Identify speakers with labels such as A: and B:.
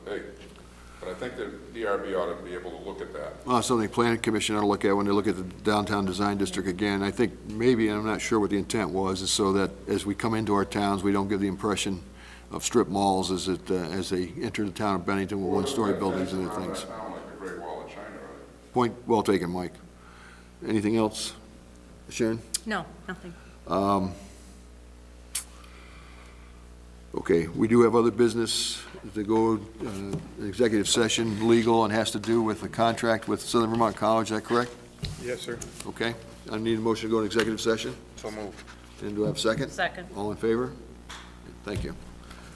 A: big. But I think that DRB ought to be able to look at that.
B: Uh, Something planning commission ought to look at when they look at the downtown design district again. I think maybe, and I'm not sure what the intent was, is so that as we come into our towns, we don't give the impression of strip malls as it, uh, as they enter the town of Bennington with one-story buildings and other things.
A: Around that town, like the Great Wall of China, right?
B: Point well taken, Mike. Anything else? Sharon?
C: No, nothing.
B: Okay, we do have other business to go, uh, executive session, legal, and has to do with the contract with Southern Vermont College, is that correct?
D: Yes, sir.
B: Okay, I need a motion to go into executive session,
D: So moved.
B: and do I have a second?
C: Second.
B: All in favor? Thank you.